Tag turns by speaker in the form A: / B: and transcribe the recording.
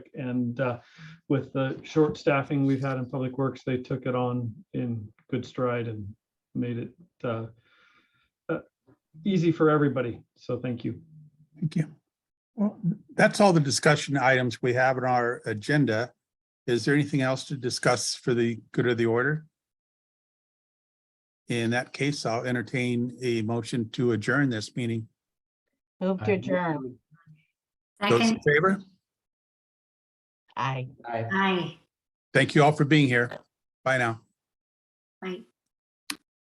A: And uh, with the short staffing we've had in Public Works, they took it on in good stride and made it uh, uh, easy for everybody. So thank you.
B: Thank you. Well, that's all the discussion items we have on our agenda. Is there anything else to discuss for the good of the order? In that case, I'll entertain a motion to adjourn this meeting.
C: Move to adjourn.
B: Those in
D: Second,
B: favor?
C: Aye.
D: aye.
B: Thank you all for being here. Bye now.
D: Aye.